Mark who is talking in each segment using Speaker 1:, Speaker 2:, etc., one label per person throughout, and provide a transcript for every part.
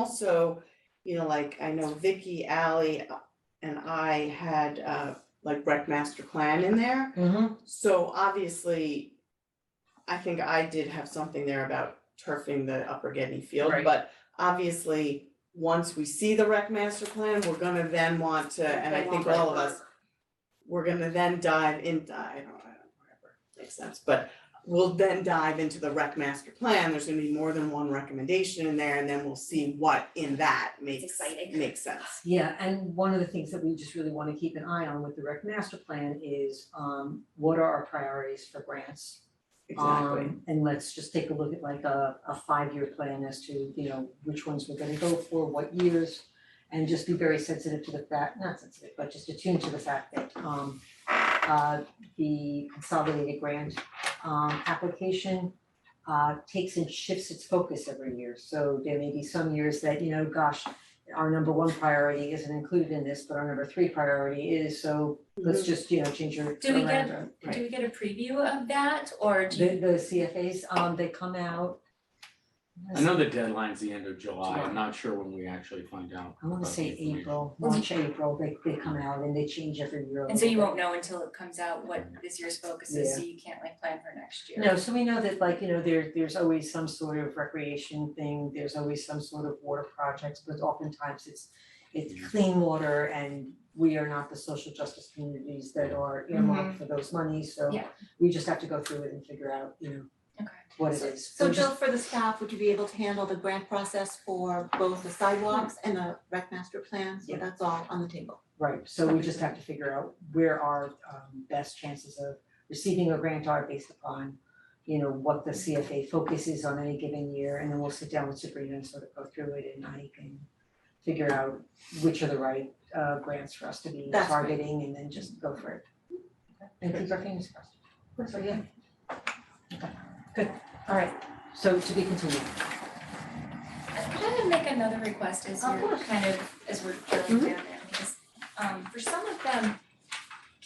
Speaker 1: also, you know, like I know Vicky, Ally, uh, and I had uh like rec master plan in there.
Speaker 2: Mhm.
Speaker 1: So obviously, I think I did have something there about turfing the Upper Getty Field,
Speaker 2: Right.
Speaker 1: but obviously, once we see the rec master plan, we're gonna then want to, and I think all of us, we're gonna then dive in, I don't, I don't, whatever, makes sense, but we'll then dive into the rec master plan, there's gonna be more than one recommendation in there, and then we'll see what in that makes,
Speaker 3: exciting.
Speaker 1: makes sense.
Speaker 2: Yeah, and one of the things that we just really wanna keep an eye on with the rec master plan is, um, what are our priorities for grants?
Speaker 1: Exactly,
Speaker 2: Um, And let's just take a look at like a, a five-year plan as to, you know, which ones we're gonna go for, what years. And just be very sensitive to the fact, not sensitive, but just attuned to the fact that, um, uh, the consolidated grant, um, application uh, takes and shifts its focus every year. So there may be some years that, you know, gosh, our number one priority isn't included in this, but our number three priority is, so let's just, you know, change your.
Speaker 3: Mm-hmm. Do we get-
Speaker 2: memorandum, right?
Speaker 3: Do we get a preview of that or do
Speaker 2: The
Speaker 3: you?
Speaker 2: the CFAs, um, they come out.
Speaker 4: I know the deadline's the end of July,
Speaker 2: July.
Speaker 4: I'm not sure when we actually find out.
Speaker 2: I wanna
Speaker 4: about the
Speaker 2: say
Speaker 4: information.
Speaker 2: April, March, April, they they come out and they change every year. a
Speaker 3: And so you
Speaker 2: little
Speaker 3: won't know until it comes out what this year's focus is, so you can't like plan for next
Speaker 2: bit.
Speaker 3: year.
Speaker 2: No, so we know that like, you know, there there's always some sort of recreation thing, there's always some sort of water projects, but oftentimes it's
Speaker 4: Mm.
Speaker 2: it's clean water and we are not the social justice communities that are earmarked for those monies, so
Speaker 3: Mm-hmm. Yeah.
Speaker 2: we just have to go through it and figure out, you know,
Speaker 3: Okay.
Speaker 2: what it is.
Speaker 5: So
Speaker 2: We're just-
Speaker 5: Jill, for the staff, would you be able to handle the grant process for both the sidewalks and the rec master plan? So
Speaker 2: Yeah.
Speaker 5: that's all on the table.
Speaker 2: Right, so we just have to figure out where our um best chances of receiving a grant are based upon, you know, what the CFA focus is on any given year, and then we'll sit down with Sabrina and sort of go through it and I can figure out which are the right uh grants for us to be
Speaker 5: That's great.
Speaker 2: targeting and then just go for it. And keep our fingers crossed. So, yeah. Okay, good, all right, so to be continued.
Speaker 3: Could I make another request as
Speaker 2: Of
Speaker 3: you're
Speaker 2: course.
Speaker 3: kind of, as we're drilling down there, because um for some of them,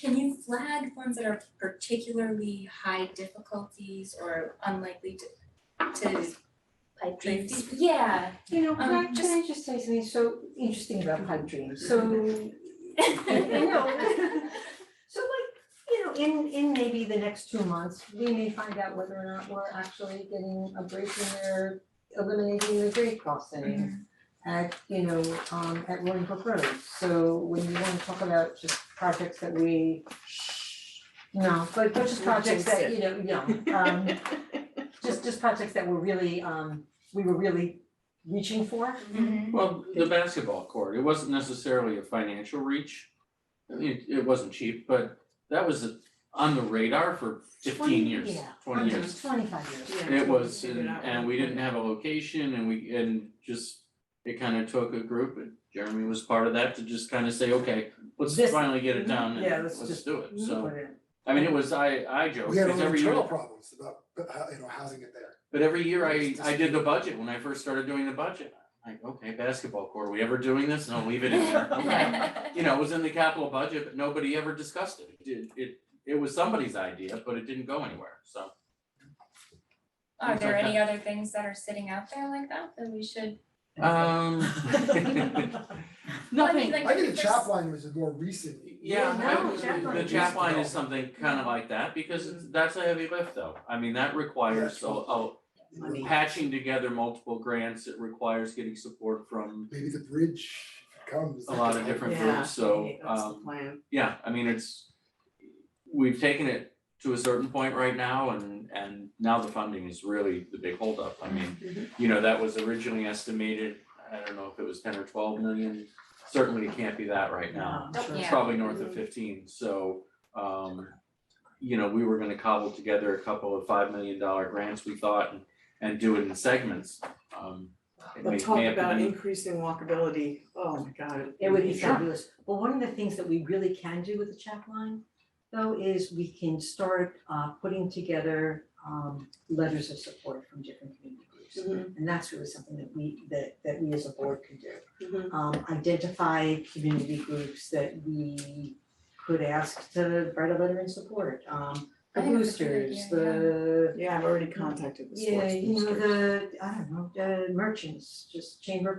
Speaker 3: can you flag ones that are particularly high difficulties or unlikely to to
Speaker 6: pipe
Speaker 3: be-
Speaker 6: dreams.
Speaker 3: Yeah.
Speaker 2: You know,
Speaker 3: Um, just-
Speaker 2: I just say something so interesting about pipe dreams?
Speaker 3: Mm-hmm.
Speaker 2: So like, you know, in in maybe the next two months, we may find out whether or not we're actually getting a break in there, eliminating the grade crossing at, you know, um at Roaring Brook Road. So when you wanna talk about just projects that we no, but but just projects that, you know, you know, um just just projects that were really um, we were really reaching for.
Speaker 3: Mhm.
Speaker 4: Well, the basketball court, it wasn't necessarily a financial reach. I mean, it wasn't cheap, but that was on the radar for fifteen years,
Speaker 2: Yeah,
Speaker 4: twenty years.
Speaker 2: Twenty-five years.
Speaker 1: Yeah.
Speaker 4: It was,
Speaker 1: Figured
Speaker 4: and
Speaker 1: out
Speaker 4: and
Speaker 1: what-
Speaker 4: we didn't have a location and we, and just, it kind of took a group and Jeremy was part of that to just kind of say, okay, let's
Speaker 2: This-
Speaker 4: finally get it done
Speaker 2: Yeah,
Speaker 4: and
Speaker 2: let's
Speaker 4: Mm-hmm. let's
Speaker 2: just-
Speaker 4: do it, so.
Speaker 2: Put it in.
Speaker 4: I mean, it was, I, I joke,
Speaker 7: We had
Speaker 4: because
Speaker 7: our own
Speaker 4: every year.
Speaker 7: internal problems about, uh, how- you know, housing it there.
Speaker 4: But every year I,
Speaker 7: It's
Speaker 4: I did the budget, when I first started doing the budget, like, okay, basketball court, are we ever doing this? No, leave it in there, okay. You know, it was in the capital budget, but nobody ever discussed it. It, it, it was somebody's idea, but it didn't go anywhere, so.
Speaker 3: Are
Speaker 4: Things
Speaker 3: there
Speaker 4: like
Speaker 3: any other things that are sitting out there like that that we should?
Speaker 4: Um.
Speaker 3: Well, I mean,
Speaker 4: Nothing,
Speaker 3: like,
Speaker 7: I think
Speaker 3: if
Speaker 7: the
Speaker 3: there's-
Speaker 7: chap line was more recent.
Speaker 4: yeah,
Speaker 2: Yeah, no,
Speaker 4: I, the
Speaker 2: chaplain.
Speaker 4: chap line is something kind of like that, because it's, that's a heavy lift though. I mean, that requires a, a
Speaker 1: Money.
Speaker 4: patching together multiple grants, it requires getting support from
Speaker 7: Maybe the bridge comes.
Speaker 4: a lot of different
Speaker 1: Yeah.
Speaker 4: groups, so
Speaker 1: That's the
Speaker 4: um
Speaker 1: plan,
Speaker 4: yeah, I mean, it's we've taken it to a certain point right now and and now the funding is really the big holdup. I
Speaker 1: Mm-hmm.
Speaker 4: mean, you know, that was originally estimated, I don't know if it was ten or twelve million, certainly it can't be that right now.
Speaker 1: Um,
Speaker 2: No, sure.
Speaker 4: It's
Speaker 3: Yeah.
Speaker 4: probably north
Speaker 1: Mm-hmm.
Speaker 4: of fifteen, so um you know, we were gonna cobble together a couple of five million dollar grants, we thought, and and do it in segments. Um it may-
Speaker 1: but
Speaker 4: may
Speaker 1: talk
Speaker 4: have to
Speaker 1: about
Speaker 4: be-
Speaker 1: increasing walkability, oh my god.
Speaker 2: It would be
Speaker 1: Sure.
Speaker 2: fabulous. But one of the things that we really can do with the chat line though is we can start uh putting together um letters of support from different community groups.
Speaker 3: Mm-hmm.
Speaker 1: Mhm.
Speaker 2: And that's really something that we that that we as a board can do.
Speaker 1: Mhm.
Speaker 3: Mm-hmm.
Speaker 2: um identify community groups that we could ask to write a letter in support, um the
Speaker 3: I think that's a good
Speaker 2: boosters,
Speaker 3: idea, yeah.
Speaker 2: the
Speaker 1: Yeah, I've already contacted the sports
Speaker 2: yeah, you know,
Speaker 1: boosters.
Speaker 2: the, I don't know, the merchants, just chamber of